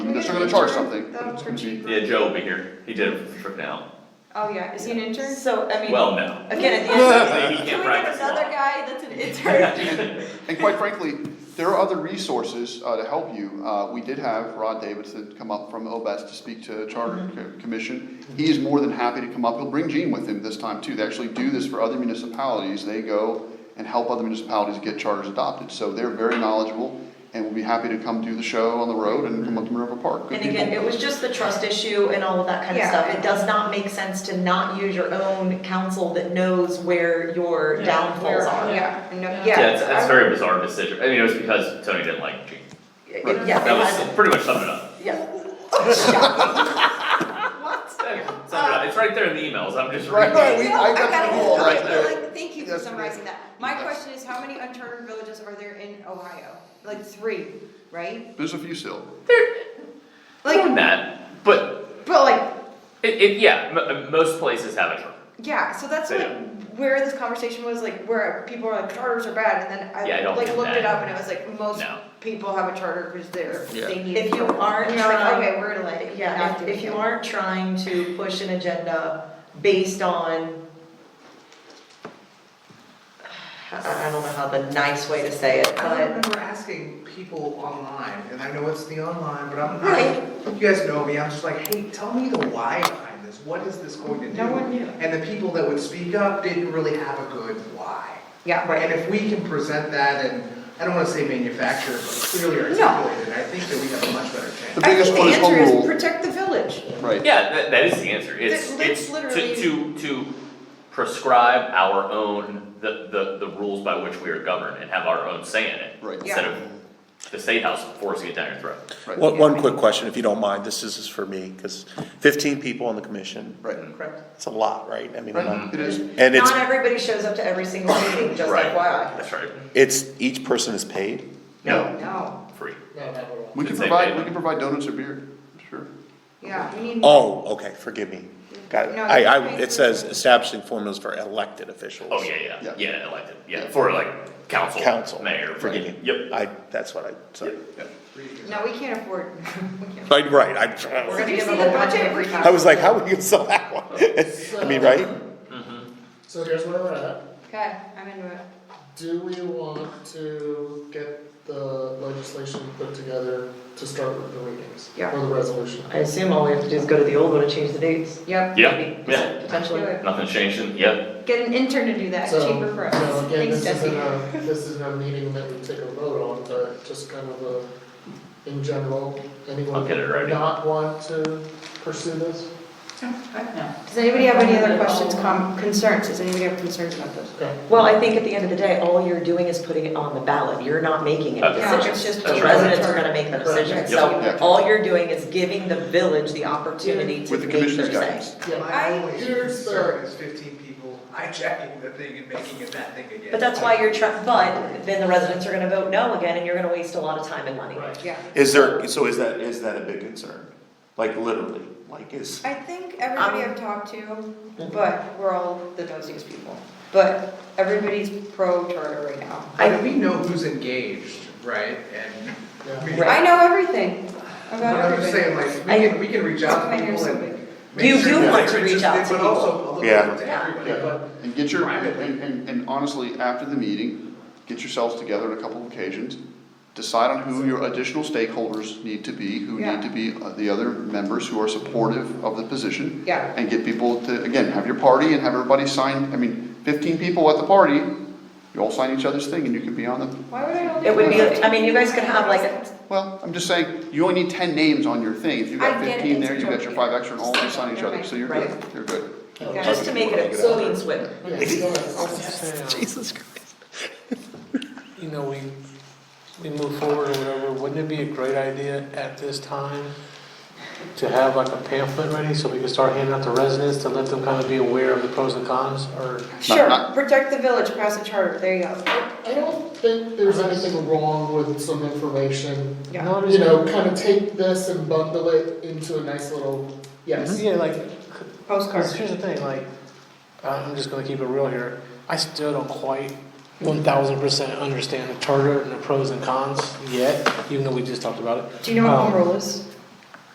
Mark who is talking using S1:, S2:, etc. S1: Unless they're gonna charge something.
S2: That'll
S1: It's gonna be-
S2: cheap.
S3: Yeah, Joe will be here, he did it for now,
S2: Oh, yeah, is he an intern?
S4: So, I mean,
S3: well, no.
S4: again, at the end of the day,
S3: He
S4: can
S3: can't
S4: we have
S3: practice
S4: another
S3: law.
S4: guy that's an intern?
S1: And quite frankly, there are other resources uh, to help you. Uh, We did have Rod Davidson come up from OBES to speak to Charter
S3: Mm-hmm.
S1: Co- Commission. He is more than happy to come up. He'll bring Gene with him this time too. They actually do this for other municipalities. They go and help other municipalities get charters adopted. So they're very knowledgeable and will be happy to come do the show on the road and come up to Minerva Park. Good
S4: And again,
S1: people.
S4: it was just the trust issue and all of that kind of
S2: Yeah.
S4: stuff. It does not make sense to not use your own counsel that knows where your
S3: Yeah.
S4: downfalls are.
S2: Yeah, no, yeah.
S3: Yeah, it's, it's
S2: I'm-
S3: a very bizarre decision, I mean, it was because Tony didn't like Gene,
S4: It-
S1: Right.
S4: Yeah,
S3: that
S4: it
S3: was
S4: has-
S3: pretty much summed it up.
S4: yeah. What?
S3: Summed it up, it's right there in the emails, I'm just
S1: Right,
S3: reading.
S1: right, we, I got the call right there.
S2: Like, Thank you for summarizing that. My question is, how many uncharted villages are there in Ohio? Like three, right?
S1: There's a few still.
S3: More than
S2: Like,
S3: that, but
S2: but like,
S3: it, it, yeah, m- uh, most places have a charter,
S2: yeah, so that's
S3: Yeah.
S2: like where this conversation was, like where people are like charters are bad, and then
S3: Yeah, I
S2: I
S3: don't
S2: like
S3: think
S2: looked
S3: that-
S2: it up and it was like most
S3: No.
S2: people have a charter because they're,
S1: Yeah.
S2: they need. a
S4: If you
S2: charter.
S4: aren't
S2: And you're like,
S4: trying,
S2: okay, we're gonna let it,
S4: yeah,
S2: not
S4: if,
S2: doing
S4: if you
S2: it.
S4: aren't trying to push an agenda based on, I, I don't know how the nice way to say it,
S5: I don't
S4: but,
S5: remember asking people online, and I know it's the online, but I'm
S4: Right.
S5: not, you guys know me, I'm just like, hey, tell me the why behind this, what is this going to do?
S2: No one knew.
S5: And the people that would speak up didn't really have a good why.
S2: Yeah, right.
S5: And if we can present that and, I don't wanna say manufactured, but clearly
S2: No.
S5: articulated, I think that we have a much better chance.
S1: The biggest one is home
S2: I think the
S1: rule.
S2: answer is protect the village.
S1: Right.
S3: yeah, that, that is the answer, it's,
S2: That- that's
S3: it's to,
S2: literally-
S3: to, to prescribe our own, the, the, the rules by which we are governed and have our own say in it.
S1: Right.
S3: Instead of the state house forcing it down your throat.
S1: Right.
S6: One, one quick question, if you don't mind, this is for me, because fifteen people on the commission,
S1: Right,
S5: Correct.
S6: it's a lot, right? I mean,
S3: Mm-hmm.
S1: right, it is.
S6: and it's,
S4: not everybody shows up to every single meeting, just
S3: Right.
S4: FYI.
S3: That's right,
S6: it's, each person is paid?
S3: no,
S2: No,
S3: free.
S1: We can
S3: It's a
S1: provide,
S3: big-
S1: we can provide donuts or beer, sure.
S2: yeah, we need.
S6: Oh, okay, forgive me, got it.
S2: No,
S6: I, I,
S2: it's-
S6: it says establishing formulas for elected officials.
S3: Oh, yeah, yeah,
S1: Yeah.
S3: yeah, elected, yeah,
S1: Yeah.
S3: for like council,
S6: Council,
S3: mayor.
S6: forgive me.
S3: right. Yep.
S6: I, that's what I, sorry.
S2: No, we can't afford, we can't.
S6: Right, right, I,
S4: We're gonna
S2: Did you
S4: give
S2: see
S4: them
S2: the
S4: a one
S2: budget?
S4: every
S6: I was like, how would you sell that one? I mean, right?
S7: So here's where we're at.
S2: Okay, I'm into it.
S7: Do we want to get the legislation put together to start with the readings?
S2: Yeah.
S7: Or the resolution?
S4: I assume all we have to do is go to the old one and change the dates.
S2: Yep.
S3: Yeah,
S4: Maybe,
S3: yeah,
S4: Potentially.
S3: nothing's changing, yep,
S2: Get an intern to do that,
S7: So,
S2: cheaper for
S7: you know,
S2: us.
S7: again,
S2: Thanks,
S7: this
S2: Jesse.
S7: isn't a, this isn't a meeting that we take a vote on, but just kind of a, in general, anyone
S3: I'll get it
S7: who
S3: ready.
S7: would not want to pursue this?
S2: Does anybody have any other questions, com, concerns? Does anybody have concerns about this?
S7: Okay.
S4: Well, I think at the end of the day, all you're doing is putting it on the ballot, you're not making any
S3: Okay.
S2: Yeah,
S4: decisions.
S2: it's just.
S3: That's
S4: The
S3: right.
S4: residents are gonna make the
S7: Correct.
S4: decision,
S2: Yeah.
S4: so all you're doing is giving the village the opportunity to
S1: With the
S4: make their say.
S1: commission's guidance.
S7: Yeah,
S5: My only
S7: here's the-
S5: concern is fifteen people hijacking the thing and making it that thing again.
S4: But that's why you're trying, but then the residents are gonna vote no again, and you're gonna waste a lot of time and money.
S3: right.
S2: Yeah,
S6: Is there, so is that, is that a big concern? Like, literally, like, is?
S2: I think everybody
S4: Um,
S2: I've talked to, but we're all the nosiest people, but everybody's pro charter right now.
S5: But we know who's engaged, right, and. we-
S4: Right.
S2: I know everything about
S5: But I'm just
S2: everybody.
S5: saying, like,
S4: I-
S5: we can, we can reach out
S2: My
S5: to
S2: ears
S5: people
S2: so
S5: and.
S2: big.
S5: make
S4: You
S5: sure
S4: do
S5: that
S4: want
S5: they're
S4: to reach out
S5: interested,
S4: to
S5: But also a little
S6: Yeah.
S5: bit to
S4: Yeah.
S5: everybody, but
S1: And get your,
S5: Right.
S1: and, and- and honestly, after the meeting, get yourselves together on a couple of occasions, decide on who your additional stakeholders need to be, who
S2: Yeah.
S1: need to be uh, the other members who are supportive of the position.
S2: Yeah.
S1: And get people to, again, have your party and have everybody sign, I mean, fifteen people at the party, you all sign each other's thing and you can be on the,
S2: Why would I only?
S4: It would be,
S2: do that?
S4: I mean, you guys could have like, a-
S1: well, I'm just saying, you only need ten names on your thing, if you've
S2: I
S1: got
S2: get it,
S1: fifteen
S2: it's
S1: there,
S2: a
S1: you've got your
S2: joke.
S1: five extra and all of you sign each other, so you're good,
S4: Right.
S1: you're good.
S2: Yeah.
S4: just to make it a
S7: So-
S4: clean sweep.
S7: yeah, go ahead. I'll just say, um,
S6: Jesus Christ.
S8: you know, we, we move forward or whatever, wouldn't it be a great idea at this time to have like a pamphlet ready so we can start handing out to residents to let them kind of be aware of the pros and cons or?
S2: Sure, protect the village, pass a charter, there you go.
S7: I don't think there's anything wrong with some information.
S2: Yeah.
S7: You know, kind of take this and bundle it into a nice little, yes.
S6: Mm-hmm.
S8: Yeah, like,
S2: Postcards.
S8: Because here's the thing, like, I- I'm just gonna keep it real here. I still don't quite one thousand percent understand the charter and the pros and cons yet, even though we just talked about it.
S2: Do you know what
S8: Um,
S2: home rule is?